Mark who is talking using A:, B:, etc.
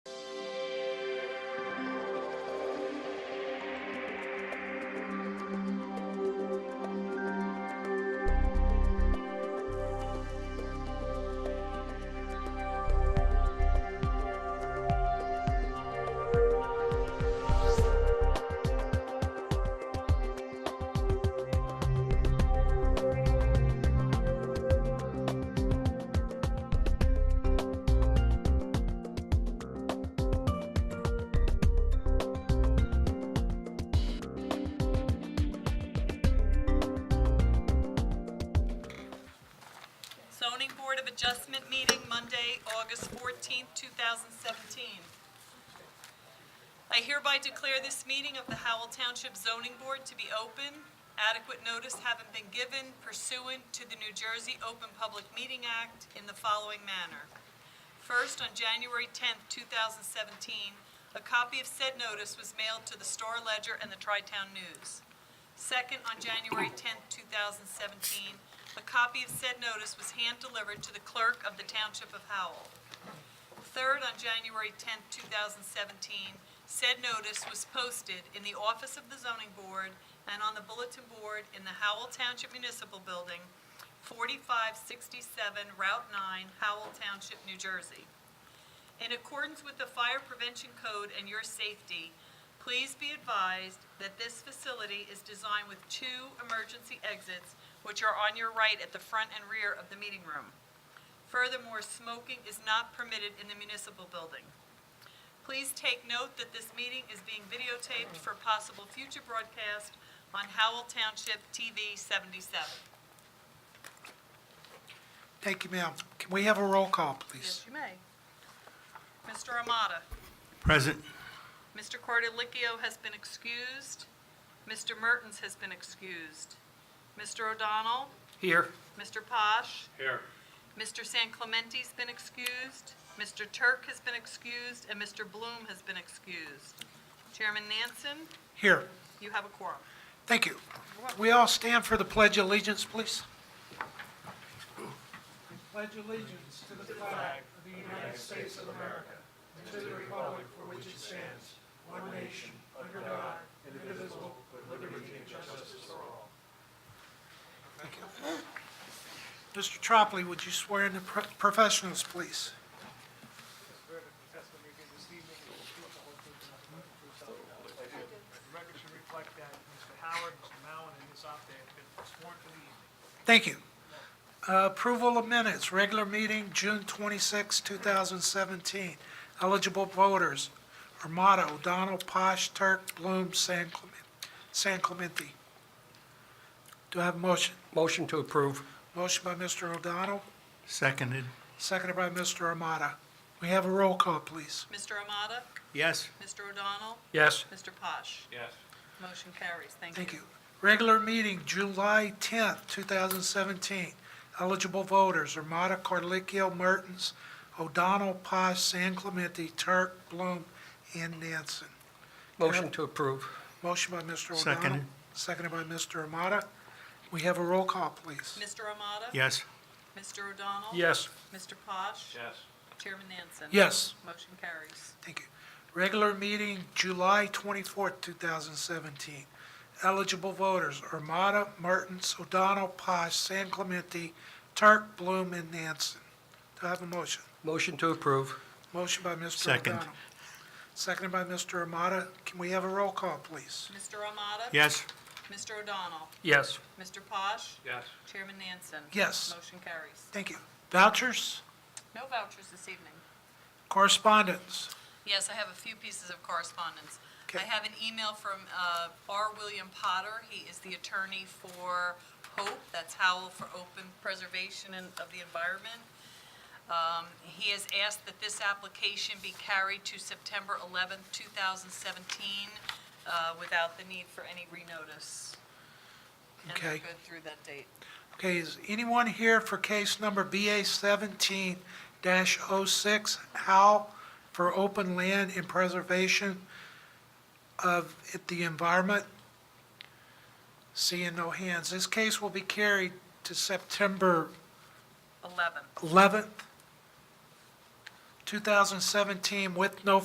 A: of Adjustment meeting Monday, August 14, 2017. I hereby declare this meeting of the Howell Township Zoning Board to be open. Adequate notice having been given pursuant to the New Jersey Open Public Meeting Act in the following manner. First, on January 10th, 2017, a copy of said notice was mailed to the Star Ledger and the Tri-Town News. Second, on January 10th, 2017, a copy of said notice was hand-delivered to the clerk of the Township of Howell. Third, on January 10th, 2017, said notice was posted in the office of the zoning board and on the bulletin board in the Howell Township Municipal Building, 4567 Route 9, Howell Township, New Jersey. In accordance with the Fire Prevention Code and your safety, please be advised that this facility is designed with two emergency exits, which are on your right at the front and rear of the meeting room. Furthermore, smoking is not permitted in the municipal building. Please take note that this meeting is being videotaped for possible future broadcast on Howell Township TV 77.
B: Thank you, ma'am. Can we have a roll call, please?
A: you may. Mr. Amata.
C: Present.
A: Mr. Cordilicchio has been excused. Mr. Mertens has been excused. Mr. O'Donnell,
B: Here.
A: Mr. Posh,
C: Here.
A: Mr. San Clementi's been excused, Mr. Turk has been excused, and Mr. Bloom has been excused. Chairman Nansen,
B: Here.
A: you have a quorum.
B: Thank you. We all stand for the Pledge of Allegiance, please. Pledge allegiance to the flag of the United States of America and to the republic for which it stands, one nation, under God, indivisible, with liberty and justice for all. Mr. Tropoli, would you swear in the pro- professionals, please?
D: swear that the testimony you give this evening is the truth, the whole truth, and nothing but the truth, so help you God. The record should reflect that Mr. Howard, Mr. Mallon, and Ms. Opday have been sworn for the evening.
B: Thank you. Uh, Approval of minutes, regular meeting, June 26, 2017. Eligible voters, Armato, O'Donnell, Posh, Turk, Bloom, San Clemen- San Clemente. Do I have a motion?
E: Motion to approve.
B: Motion by Mr. O'Donnell,
C: Seconded.
B: seconded by Mr. Armato. We have a roll call, please.
A: Mr. Amata,
C: Yes.
A: Mr. O'Donnell,
E: Yes.
A: Mr. Posh.
D: Yes.
A: Motion carries. Thank you.
B: Thank you. Regular meeting, July 10, 2017. Eligible voters, Armata, Carlicchio, Mertens, O'Donnell, Paz, San Clemente, Turk, Bloom, and Nansen.
E: Motion to approve.
B: Motion by Mr. O'Donnell.
C: Seconded.
B: Seconded by Mr. Armata. We have a roll call, please.
A: Mr. Amata.
C: Yes.
A: Mr. O'Donnell.
E: Yes.
A: Mr. Posh.
D: Yes.
A: Chairman Nansen.
B: Yes,
A: Motion carries.
B: thank you. Regular meeting, July 24, 2017. Eligible voters, Armata, Mertens, O'Donnell, Paz, San Clemente, Turk, Bloom, and Nansen. Do I have a motion?
E: Motion to approve.
B: Motion by Mr.
C: Second.
B: O'Donnell. Seconded by Mr. Armata. Can we have a roll call, please?
A: Mr. Amata.
C: Yes.
A: Mr. O'Donnell.
E: Yes.
A: Mr. Posh.
D: Yes.
A: Chairman Nansen.
B: Yes.
A: Motion carries.
B: Thank you. Vouchers,
A: No vouchers this evening.
B: correspondence.
A: Yes, I have a few pieces of correspondence. I
B: Okay.
A: have an email from uh, R. William Potter. He is the attorney for HOPE, that's Howell for Open Preservation and- of the Environment. Um, He has asked that this application be carried to September 11th, 2017, uh, without the need for any renotice. And they're
B: Okay.
A: good through that date.
B: Okay, is anyone here for case number BA 17-06, How for Open Land and Preservation of the Environment? Seeing no hands. This case will be carried to September
A: 11th.
B: 11th, 2017, with no